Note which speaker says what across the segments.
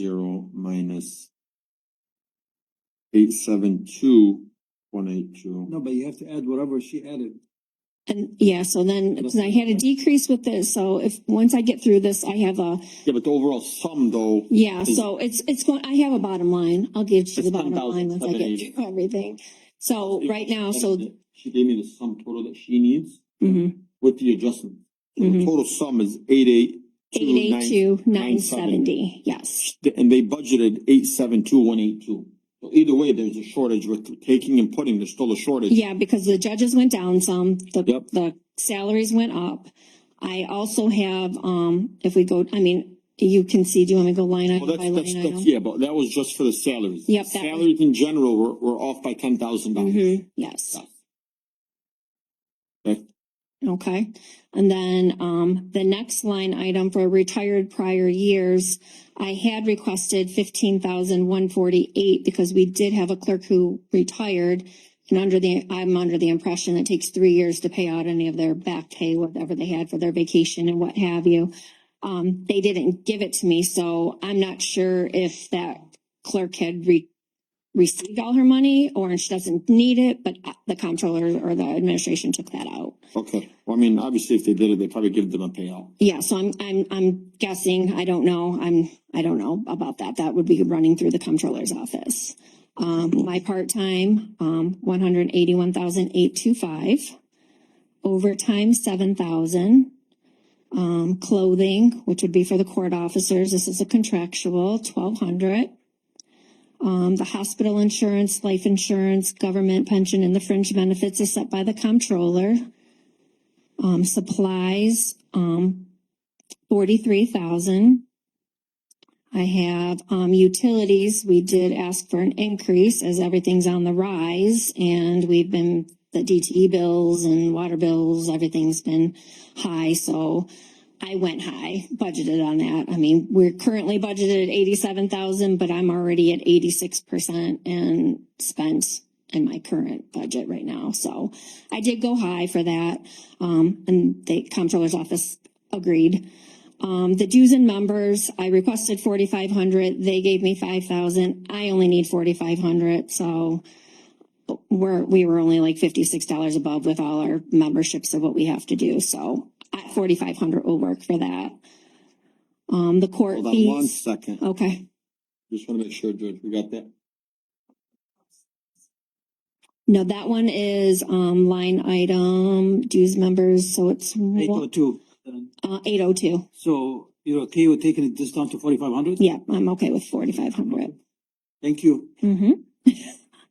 Speaker 1: zero minus eight seven two one eight two.
Speaker 2: No, but you have to add whatever she added.
Speaker 3: And yeah, so then, because I had a decrease with this, so if, once I get through this, I have a,
Speaker 1: Yeah, but the overall sum though,
Speaker 3: yeah, so it's, it's going, I have a bottom line. I'll give you the
Speaker 1: It's
Speaker 3: bottom line once I get
Speaker 1: 10,780.
Speaker 3: through everything. So right now, so,
Speaker 1: She gave me the sum total that she needs
Speaker 3: mhm,
Speaker 1: with the adjustment. So The
Speaker 3: mhm.
Speaker 1: total sum is eight eight
Speaker 3: Eight
Speaker 1: two
Speaker 3: eight
Speaker 1: nine,
Speaker 3: two, nine
Speaker 1: 970.
Speaker 3: seventy, yes.
Speaker 1: and they budgeted eight seven two one eight two. So either way, there's a shortage with taking and putting, there's still a shortage.
Speaker 3: Yeah, because the judges went down some, the,
Speaker 1: Yep.
Speaker 3: the salaries went up. I also have, um, if we go, I mean, you can see, do you want me to go line
Speaker 1: Well,
Speaker 3: item by
Speaker 1: that's, that's,
Speaker 3: line
Speaker 1: that's,
Speaker 3: item?
Speaker 1: yeah, but that was just for the salaries.
Speaker 3: Yep, that was-
Speaker 1: Salaries in general were, were off by ten thousand dollars.
Speaker 3: Mhm, Yes.
Speaker 1: Okay.
Speaker 3: Okay, and then, um, the next line item for retired prior years, I had requested fifteen thousand one forty-eight because we did have a clerk who retired. And under the, I'm under the impression it takes three years to pay out any of their back pay, whatever they had for their vacation and what have you. Um, they didn't give it to me, so I'm not sure if that clerk had re- received all her money or she doesn't need it, but uh, the comptroller or the administration took that out.
Speaker 1: Okay, well, I mean, obviously if they did it, they probably give them a payout.
Speaker 3: Yeah, so I'm, I'm, I'm guessing, I don't know, I'm, I don't know about that. That would be running through the comptroller's office. Um, my part-time, um, one hundred eighty-one thousand eight two five. Overtime, seven thousand. Um, clothing, which would be for the court officers, this is a contractual, twelve hundred. Um, the hospital insurance, life insurance, government pension, and the fringe benefits is set by the comptroller. Um, supplies, um, forty-three thousand. I have, um, utilities, we did ask for an increase as everything's on the rise and we've been, the DTE bills and water bills, everything's been high, so I went high, budgeted on that. I mean, we're currently budgeted at eighty-seven thousand, but I'm already at eighty-six percent and spent in my current budget right now, so I did go high for that. Um, and the comptroller's office agreed. Um, the dues and members, I requested forty-five hundred, they gave me five thousand, I only need forty-five hundred, so we're, we were only like fifty-six dollars above with all our memberships of what we have to do, so at forty-five hundred will work for that. Um, the court
Speaker 1: Hold on one
Speaker 3: fees, Oh.
Speaker 1: second,
Speaker 3: okay,
Speaker 1: just wanna make sure, George, we got that.
Speaker 3: no, that one is, um, line item dues members, so it's
Speaker 2: Eight oh
Speaker 3: one-
Speaker 2: two.
Speaker 3: uh, eight oh two.
Speaker 2: So you're okay with taking this down to forty-five hundred?
Speaker 3: Yeah, I'm okay with forty-five hundred.
Speaker 2: Thank you.
Speaker 3: Mm-hmm.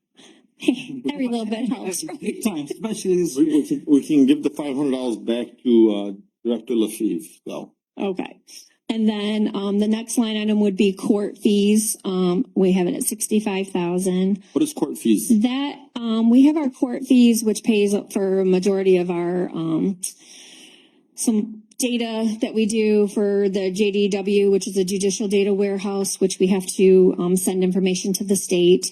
Speaker 3: Every little bit helps.
Speaker 2: Big time, especially this.
Speaker 1: We, we can, we can give the five hundred dollars back to, uh, Director LaFeeve, so.
Speaker 3: Okay. And then, um, the next line item would be court fees. Um, we have it at sixty-five thousand.
Speaker 1: What is court fees?
Speaker 3: That, um, we have our court fees, which pays for a majority of our, um, some data that we do for the JDW, which is a judicial data warehouse, which we have to um, send information to the state.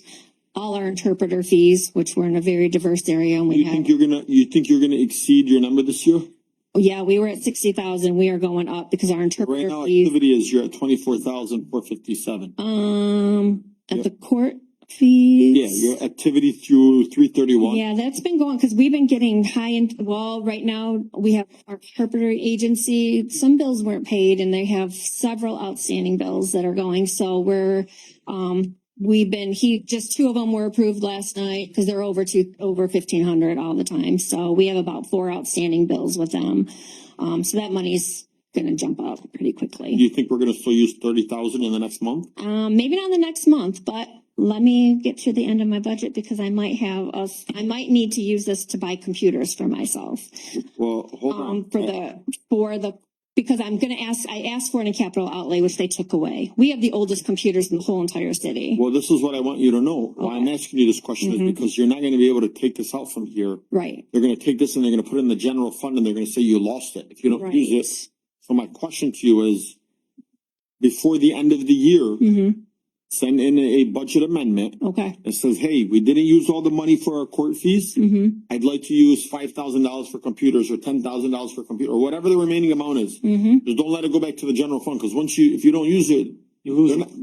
Speaker 3: All our interpreter fees, which we're in a very diverse area and we
Speaker 1: You
Speaker 3: have.
Speaker 1: think you're gonna, you think you're gonna exceed your number this year?
Speaker 3: Yeah, we were at sixty thousand. We are going up because our
Speaker 1: Right
Speaker 3: interpreter
Speaker 1: now,
Speaker 3: fees,
Speaker 1: activity is you're at twenty-four thousand four fifty-seven.
Speaker 3: um,
Speaker 1: Yeah.
Speaker 3: at the court
Speaker 1: Yeah,
Speaker 3: fees.
Speaker 1: your activity through three thirty-one.
Speaker 3: Yeah, that's been going, cause we've been getting high in, well, right now, we have our interpreter agency, some bills weren't paid and they have several outstanding bills that are going, so we're, um, we've been, he, just two of them were approved last night, cause they're over two, over fifteen hundred all the time, so we have about four outstanding bills with them. Um, so that money's gonna jump up pretty quickly.
Speaker 1: Do you think we're gonna still use thirty thousand in the next month?
Speaker 3: Um, maybe not in the next month, but let me get to the end of my budget because I might have us, I might need to use this to buy computers for myself.
Speaker 1: Well, hold on.
Speaker 3: Um, for the, for the, because I'm gonna ask, I asked for it in capital outlay, which they took away. We have the oldest computers in the whole entire city,
Speaker 1: Well, this is what I want you to know. Why I'm asking you this question is
Speaker 3: Mhm.
Speaker 1: because you're not gonna be able to take this out from here.
Speaker 3: right?
Speaker 1: They're gonna take this and they're gonna put it in the general fund and they're gonna say you lost it if you don't use it. So my question to you is, before the end of the year,
Speaker 3: hmm
Speaker 1: send in a budget amendment
Speaker 3: okay,
Speaker 1: that says, hey, we didn't use all the money for our court fees.
Speaker 3: hmm
Speaker 1: I'd like to use five thousand dollars for computers or ten thousand dollars for computer, or whatever the remaining amount is.
Speaker 3: hmm
Speaker 1: Just don't let it go back to the general fund, cause once you, if you don't use it,
Speaker 2: You lose.
Speaker 1: they're
Speaker 2: it.
Speaker 1: not-